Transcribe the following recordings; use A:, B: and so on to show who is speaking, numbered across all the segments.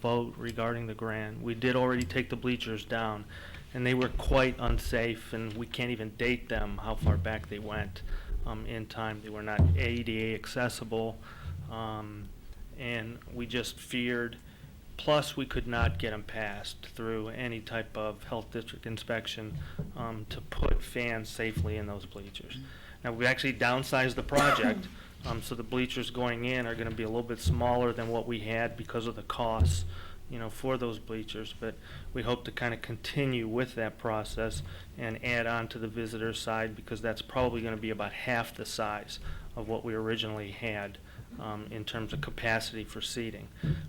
A: vote regarding the grant. We did already take the bleachers down, and they were quite unsafe, and we can't even date them, how far back they went um, in time. They were not ADA accessible, um, and we just feared, plus we could not get them passed through any type of health district inspection um, to put fans safely in those bleachers. Now, we actually downsized the project, um, so the bleachers going in are gonna be a little bit smaller than what we had because of the costs, you know, for those bleachers, but we hope to kind of continue with that process and add on to the visitor side, because that's probably gonna be about half the size of what we originally had, um, in terms of capacity for seating.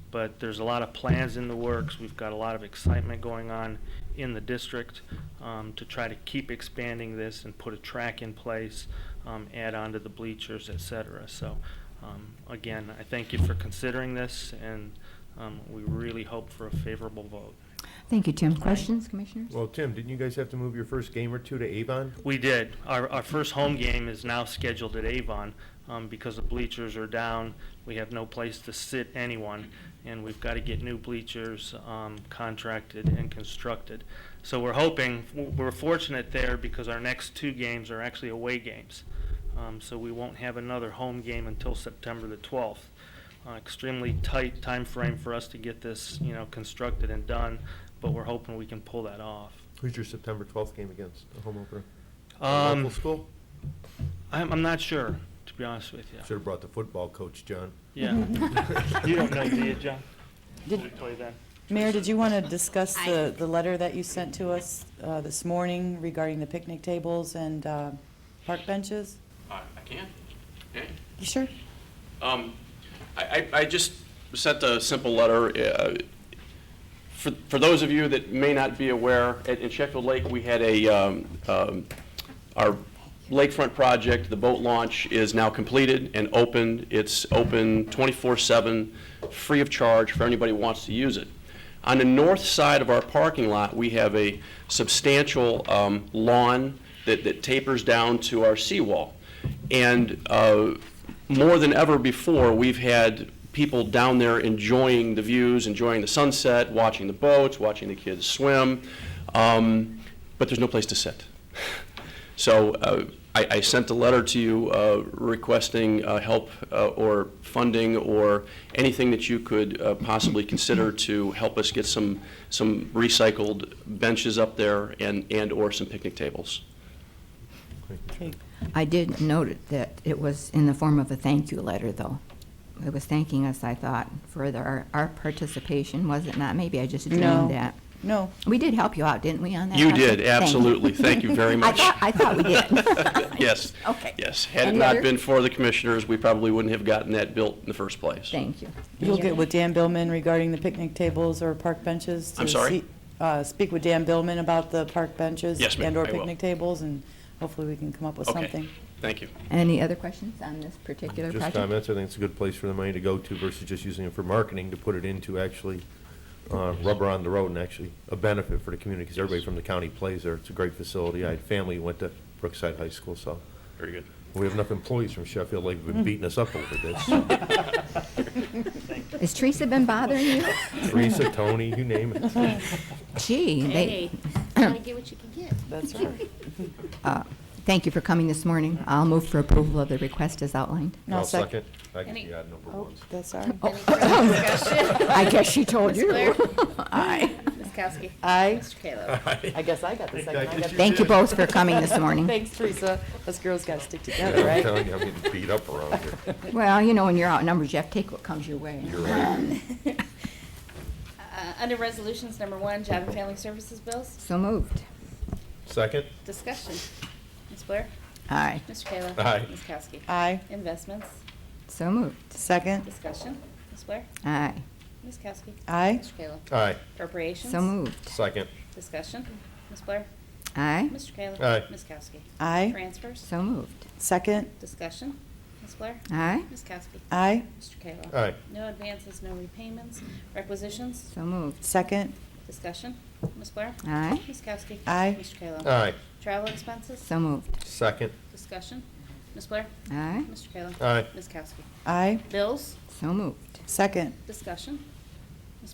A: But there's a lot of plans in the works, we've got a lot of excitement going on in the district, um, to try to keep expanding this and put a track in place, um, add on to the bleachers, et cetera. So, um, again, I thank you for considering this, and, um, we really hope for a favorable vote.
B: Thank you, Tim. Questions, commissioners?
C: Well, Tim, didn't you guys have to move your first game or two to Avon?
A: We did. Our, our first home game is now scheduled at Avon, um, because the bleachers are down. We have no place to sit anyone, and we've got to get new bleachers, um, contracted and constructed. So we're hoping, we're fortunate there because our next two games are actually away games. Um, so we won't have another home game until September the twelfth. Uh, extremely tight time frame for us to get this, you know, constructed and done, but we're hoping we can pull that off.
C: Who's your September 12th game against, a home opener? A
A: Um,
C: Local school?
A: I'm, I'm not sure, to be honest with you.
C: Should have brought the football coach, John.
A: Yeah. You don't know, do you, John? Did we play then?
D: Mayor, did you want to discuss the, the letter that you sent to us uh, this morning regarding the picnic tables and uh, park benches?
E: I I can, okay.
D: You sure?
E: Um, I, I- I just sent a simple letter. uh, For, for those of you that may not be aware, at- in Sheffield Lake, we had a, um, um, our lakefront project, the boat launch is now completed and open. It's open 24/7, free of charge for anybody who wants to use it. On the north side of our parking lot, we have a substantial um, lawn that that tapers down to our seawall. And uh, more than ever before, we've had people down there enjoying the views, enjoying the sunset, watching the boats, watching the kids swim, um, but there's no place to sit. So uh, I, I sent a letter to you uh, requesting uh, help uh, or funding or anything that you could uh, possibly consider to help us get some, some recycled benches up there and, and/or some picnic tables.
D: Okay.
B: I did note it- that it was in the form of a thank you letter, though. It was thanking us, I thought, for the- our, our participation, was it not? Maybe I just
D: No.
B: dreamed that.
D: No,
B: We did help you out, didn't we, on that?
E: You
B: project?
E: did,
B: Thank you.
E: absolutely. Thank you very
B: I
E: much.
B: thought, I thought we did.
E: Yes.
B: Okay.
E: Yes. Had it
B: Any
E: not
B: other-
E: been for the commissioners, we probably wouldn't have gotten that built in the first place.
B: Thank you.
D: you'll get with Dan Billman regarding the picnic tables or park benches? to
E: I'm sorry?
D: see- uh, Speak with Dan Billman about the park benches?
E: Yes, ma'am,
D: And/or
E: I will.
D: picnic tables, and hopefully we can come up with
E: Okay,
D: something.
E: thank you.
B: Any other questions on this particular project?
C: Just comments, I think it's a good place for the money to go to versus just using it for marketing, to put it into actually uh, rubber on the road and actually a benefit for the community, because everybody from the county plays there. It's a great facility. I had family who went to Brookside High School, so
E: Very good.
C: we have enough employees from Sheffield Lake who've been beating us up over this.
B: Has Teresa been bothering you?
C: Teresa, Tony, you name it.
B: Gee, they,
F: Hey, gotta get what you can get.
D: That's right.
B: Uh, thank you for coming this morning. I'll move for approval of the request as outlined.
D: No,
C: I'll
D: sec-
C: second. I can
F: Any-
C: be odd number
D: Oh,
C: ones.
D: that's all right.
B: Oh. I guess she told you.
F: Blair?
B: Aye.
F: Ms. Kowski.
D: Aye,
F: Mr. Kayla.
D: I guess I got the second. I got the-
B: Thank you both for coming this morning.
D: Thanks, Teresa. Us girls got to stick
C: Yeah,
D: together,
C: I'm
D: right?
C: telling you, I'm getting beat up around here.
B: Well, you know, when you're outnumbered, you have to take what comes your way.
C: You're right.
B: Um,
F: Uh, Under Resolutions Number One, Job and Family Services Bills,
B: So moved.
C: Second?
F: discussion. Ms. Blair?
B: Aye.
F: Mr. Kayla?
C: Aye.
F: Ms. Kowski.
D: Aye,
F: Investments,
B: So moved.
D: second.
F: discussion. Ms. Blair?
B: Aye.
F: Ms. Kowski.
D: Aye,
F: Mr. Kayla.
C: Aye.
F: Appropriations,
B: So moved.
C: Second.
F: discussion. Ms. Blair?
B: Aye.
F: Mr. Kayla.
C: Aye.
F: Ms. Kowski.
D: aye,
F: Transfers,
B: So moved.
D: second.
F: discussion. Ms. Blair?
B: Aye.
F: Ms. Kowski.
D: Aye,
F: Mr. Kayla.
C: Aye.
F: No advances, no repayments. Requisitions,
B: So moved.
D: second.
F: discussion. Ms. Blair?
B: Aye.
F: Ms. Kowski.
D: Aye.
F: Mr. Kayla.
C: Aye.
F: Travel expenses,
B: So moved.
C: Second.
F: Discussion. Ms. Blair?
B: Aye.
F: Mr. Kayla?
C: Aye.
F: Ms. Kowski?
D: Aye,
F: Bills?
B: So moved.
D: second.
F: Discussion.